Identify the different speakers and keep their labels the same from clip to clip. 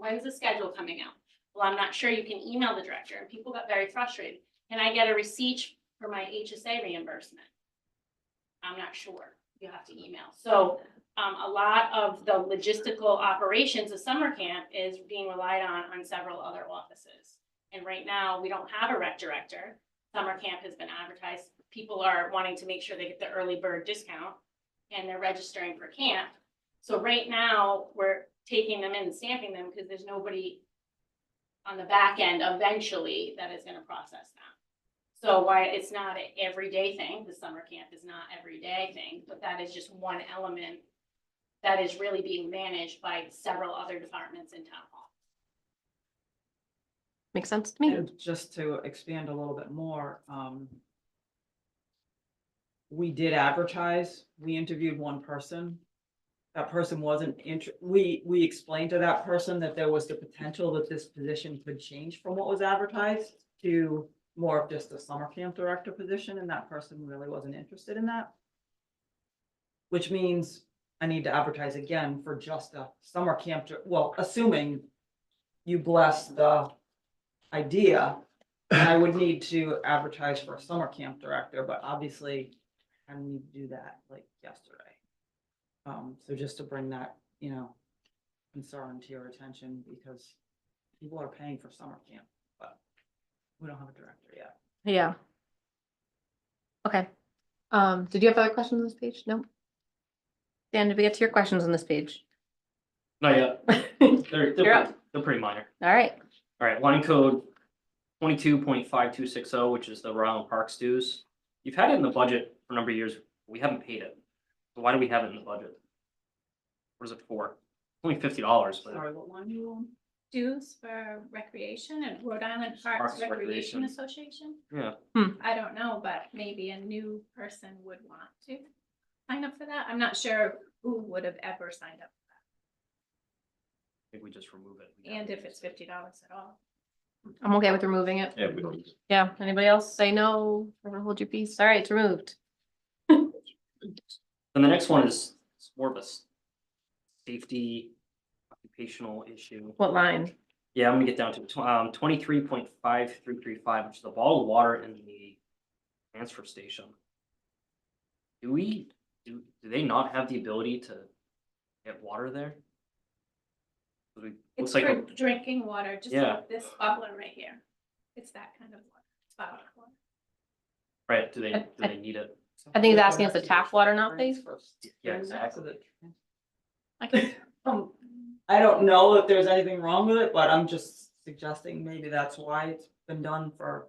Speaker 1: when's the schedule coming out? Well, I'm not sure, you can email the director, and people got very frustrated, can I get a receipt for my HSA reimbursement? I'm not sure, you have to email, so, um, a lot of the logistical operations of summer camp is being relied on, on several other offices. And right now, we don't have a rec director, summer camp has been advertised, people are wanting to make sure they get the early bird discount, and they're registering for camp, so right now, we're taking them in and stamping them because there's nobody on the back end eventually that is gonna process them. So why, it's not an everyday thing, the summer camp is not everyday thing, but that is just one element that is really being managed by several other departments in town hall.
Speaker 2: Makes sense to me.
Speaker 3: And just to expand a little bit more, um. We did advertise, we interviewed one person. That person wasn't inter, we, we explained to that person that there was the potential that this position could change from what was advertised. To more of just a summer camp director position, and that person really wasn't interested in that. Which means I need to advertise again for just a summer camp, dir- well, assuming. You bless the idea. And I would need to advertise for a summer camp director, but obviously I need to do that like yesterday. Um, so just to bring that, you know, concern to your attention because people are paying for summer camp, but we don't have a director yet.
Speaker 2: Yeah. Okay. Um, did you have other questions on this page? No? Dan, did we get to your questions on this page?
Speaker 4: Not yet.
Speaker 2: All
Speaker 4: They're,
Speaker 2: You're
Speaker 4: they're,
Speaker 2: up.
Speaker 4: pretty- they're pretty minor.
Speaker 2: right.
Speaker 4: All right, line code twenty-two point five two six oh, which is the Rhode Island Parks dues. You've had it in the budget for a number of years. We haven't paid it. So Why do we have it in the budget? What is it for? Only fifty dollars, but
Speaker 3: Sorry, what line you on?
Speaker 5: dues for recreation and Rhode Island
Speaker 4: Parks
Speaker 5: Parks
Speaker 4: Recreation.
Speaker 5: Recreation Association?
Speaker 4: Yeah.
Speaker 2: Hmm.
Speaker 5: I don't know, but maybe a new person would want to sign up for that. I'm not sure who would have ever signed up
Speaker 4: I think we just remove it.
Speaker 5: and if it's fifty dollars at all.
Speaker 2: I'm okay with removing it.
Speaker 6: Yeah, we don't.
Speaker 2: Yeah. Anybody else say no? Everyone hold your peace. All right, it's removed.
Speaker 4: And the next one is it's more of a s- safety occupational issue.
Speaker 2: What line?
Speaker 4: Yeah, I'm gonna get down to tw- um twenty-three point five three three five, which is the bottled water in the transfer station. Do we, do, do they not have the ability to get water there? 'Cause we-
Speaker 5: It's
Speaker 4: Looks like,
Speaker 5: for
Speaker 4: a-
Speaker 5: drinking water, just
Speaker 4: Yeah.
Speaker 5: like this bubbler right here. It's that kind of water. It's bottled water.
Speaker 4: right, do they,
Speaker 2: I-
Speaker 4: do they need it?
Speaker 2: I think he's asking if the tap water not pays.
Speaker 4: Yeah,
Speaker 3: exactly.
Speaker 2: I can-
Speaker 3: Um, I don't know if there's anything wrong with it, but I'm just suggesting maybe that's why it's been done for.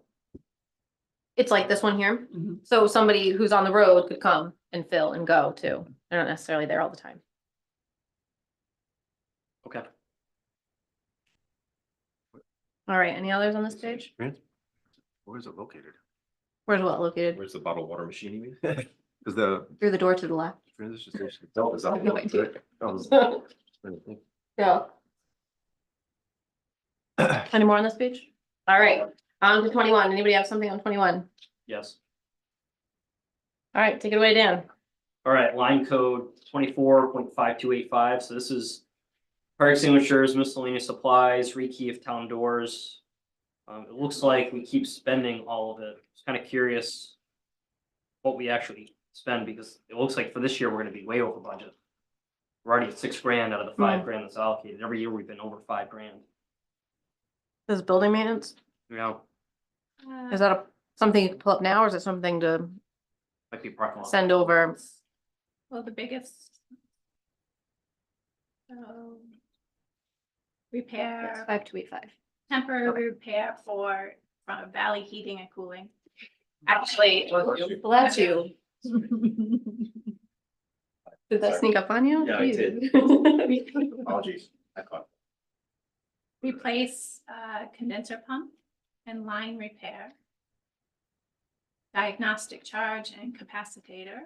Speaker 2: It's like this one here.
Speaker 3: Mhm.
Speaker 2: So somebody who's on the road could come and fill and go too. They're not necessarily there all the time.
Speaker 4: Okay,
Speaker 2: All right, any others on this page?
Speaker 6: Where's it located?
Speaker 2: Where's what located?
Speaker 6: Where's the bottled water machine, you mean? Cause the
Speaker 2: Through the door to the left.
Speaker 6: transition station itself is. out
Speaker 2: I have no
Speaker 6: there,
Speaker 2: idea.
Speaker 6: right? I was trying to think.
Speaker 2: Yeah. Any more on this page? All right, on to twenty-one. Anybody have something on twenty-one? All
Speaker 4: yes.
Speaker 2: right, take it away, Dan.
Speaker 4: All right, line code twenty-four point five two eight five, so this is fire extinguishers, miscellaneous supplies, rekey of town doors. Um, it looks like we keep spending all of it, just kind of curious what we actually spend, because it looks like for this year, we're gonna be way over budget. We're already at six grand out of the five grand that's allocated, every year we've been over five grand,
Speaker 2: This is building maintenance.
Speaker 4: you know,
Speaker 5: Uh,
Speaker 2: Is that a, something you can pull up now or is it something to
Speaker 4: might be parking lot.
Speaker 2: send over?
Speaker 5: Well, the biggest. So. Repair.
Speaker 2: Five two eight five.
Speaker 5: temporary repair for uh, Valley Heating and Cooling. Actually,
Speaker 2: Bless you. Did that sneak up on you?
Speaker 6: Yeah, it did.
Speaker 2: did.
Speaker 6: Apologies, I caught.
Speaker 5: replace uh, condenser pump and line repair. Diagnostic charge and capacitator.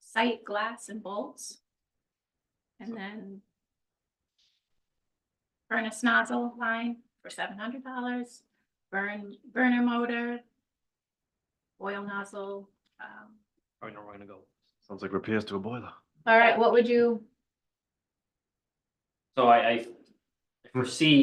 Speaker 5: Sight glass and bolts. And then furnace nozzle line for seven hundred dollars, burn, burner motor, oil nozzle, um,
Speaker 4: I know we're gonna go.
Speaker 6: Sounds like repairs to a boiler.
Speaker 2: All right, what would you,
Speaker 4: So I, I, I for C